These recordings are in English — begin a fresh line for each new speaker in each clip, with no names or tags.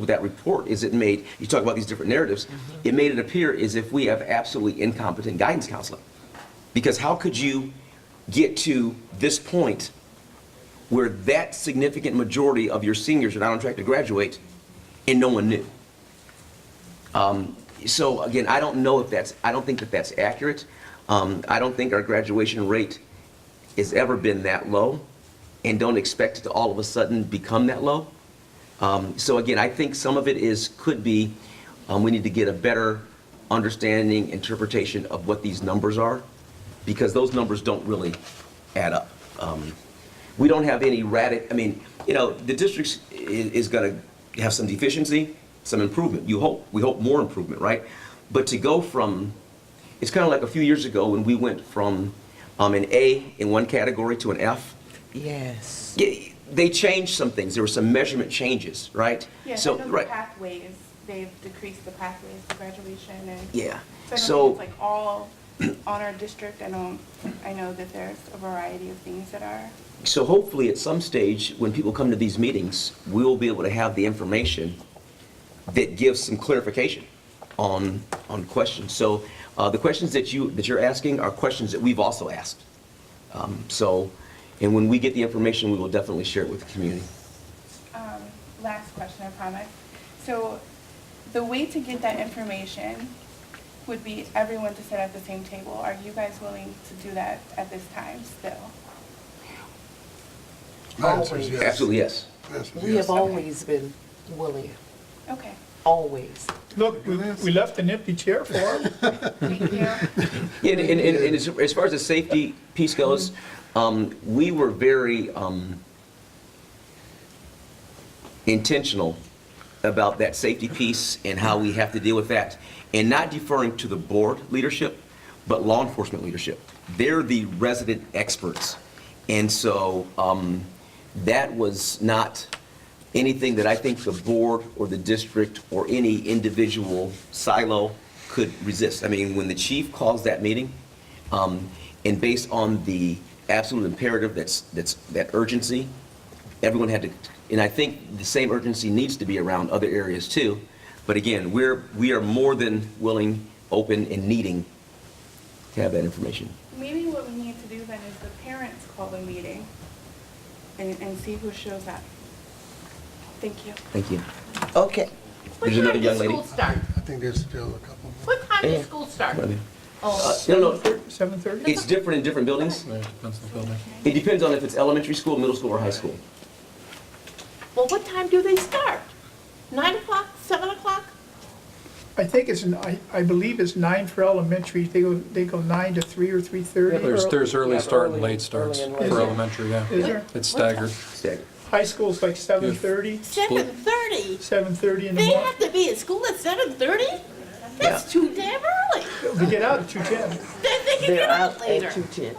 with that report is it made, you talk about these different narratives, it made it appear as if we have absolutely incompetent guidance counseling. Because how could you get to this point where that significant majority of your seniors are not on track to graduate and no one knew? Um, So again, I don't know if that's, I don't think that that's accurate. Um, I don't think our graduation rate has ever been that low and don't expect it to all of a sudden become that low. Um, So again, I think some of it is, could be, um, we need to get a better understanding, interpretation of what these numbers are, because those numbers don't really add up. Um, We don't have any radic, I mean, you know, the district is going to have some deficiency, some improvement, you hope, we hope more improvement, right? But to go from, it's kind of like a few years ago when we went from um, an A in one category to an F.
Yes.
Yeah, they changed some things. There were some measurement changes, right?
Yeah,
So,
so the
right,
pathways, they've decreased the pathways to graduation and.
yeah.
So I don't
So,
think it's like all on our district, I don't, I know that there's a variety of things that are.
so hopefully at some stage, when people come to these meetings, we will be able to have the information that gives some clarification on, on questions. So, uh, the questions that you, that you're asking are questions that we've also asked. Um, so, and when we get the information, we will definitely share it with the community.
Um, Last question, I promise. So the way to get that information would be everyone to sit at the same table. Are you guys willing to do that at this time still?
My answer is yes.
Absolutely, yes.
My answer is
We
yes.
have always been willing,
Okay,
always.
Look, we, we left an empty chair for him.
thank you.
Yeah, And, and, and and as, as far as the safety piece goes, um, we were very, um, intentional about that safety piece and how we have to deal with that. And not deferring to the board leadership, but law enforcement leadership. They're the resident experts. And so, um, that was not anything that I think the board or the district or any individual silo could resist. I mean, when the chief calls that meeting, um, and based on the absolute imperative that's, that's, that urgency, everyone had to, and I think the same urgency needs to be around other areas too. But again, we're, we are more than willing, open, and needing to have that information.
Maybe what we need to do then is the parents call the meeting and, and see who shows up. Thank you.
Thank you.
Okay.
There's
What
another
time
young
does
lady.
school start?
I think there's still a couple.
What time
Yeah.
does school start?
Right there. Uh,
Oh,
No, no,
Seven thirty?
it's different in different buildings.
Depends on the building.
It depends on if it's elementary school, middle school, or high school.
well, what time do they start? Nine o'clock, seven o'clock?
I think it's, n- I, I believe it's nine for elementary. They go, they go nine to three or three thirty.
There's, there's early
Yeah,
start and
early-
late starts
early
for
and late.
elementary,
Is
yeah.
there?
It's staggered.
Staggered.
High school's like seven thirty,
Seven thirty?
seven thirty in the
They have
morning.
to be at school at seven thirty? That's too damn early.
We get out at two ten.
Then they can
They're
get out
out
later.
at two ten.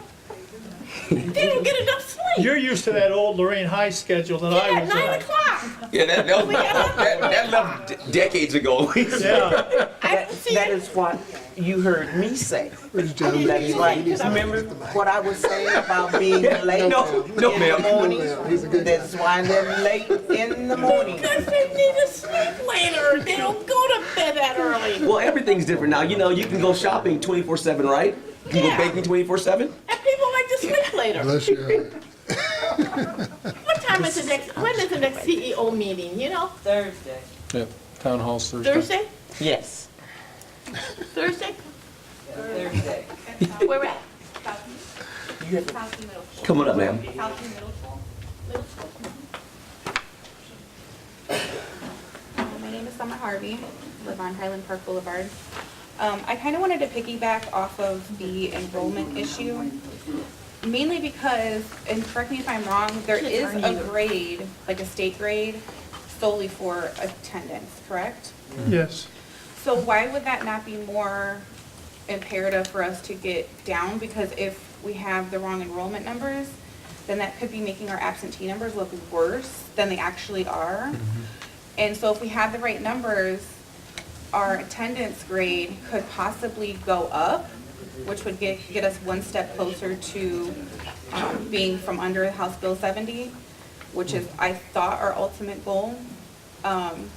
They don't get enough sleep.
You're used to that old Lorraine High schedule that I
Yeah,
was
nine
on.
o'clock.
Yeah, that, that, that that left de- decades ago.
Yeah,
I
That,
don't see
that
it.
is what you heard me say.
Ladies and gentlemen,
That is
ladies
like,
and gentlemen,
remember
that's the mic.
what I was saying about being late in
No, no,
the
ma'am.
morning?
ma'am. He's a good guy.
That's why they're late in the morning.
Because they need to sleep later. They don't go to bed that early.
Well, everything's different now. You know, you can go shopping 24/7, right? You can go
Yeah.
baking 24/7.
And people like to sleep later.
Bless you.
What time is the next, when is the next CEO meeting, you know?
Thursday.
Yep, town hall's Thursday.
Thursday?
Yes.
Thursday?
Thursday.
Where we're at?
You have
Southie Middle School.
Come on up, ma'am.
Southie Middle School. mm-hmm.
Uh, My name is Summer Harvey, live on Highland Park Boulevard. Um, I kind of wanted to piggyback off of the enrollment issue, mainly because, and correct me if I'm wrong, there is a grade, like a state grade, solely for attendance, correct?
yes.
So why would that not be more imperative for us to get down? Because if we have the wrong enrollment numbers, then that could be making our absentee numbers look worse than they actually are. And so if we had the right numbers, our attendance grade could possibly go up, which would get, get us one step closer to um, being from under House Bill 70, which is, I thought, our ultimate goal. Um,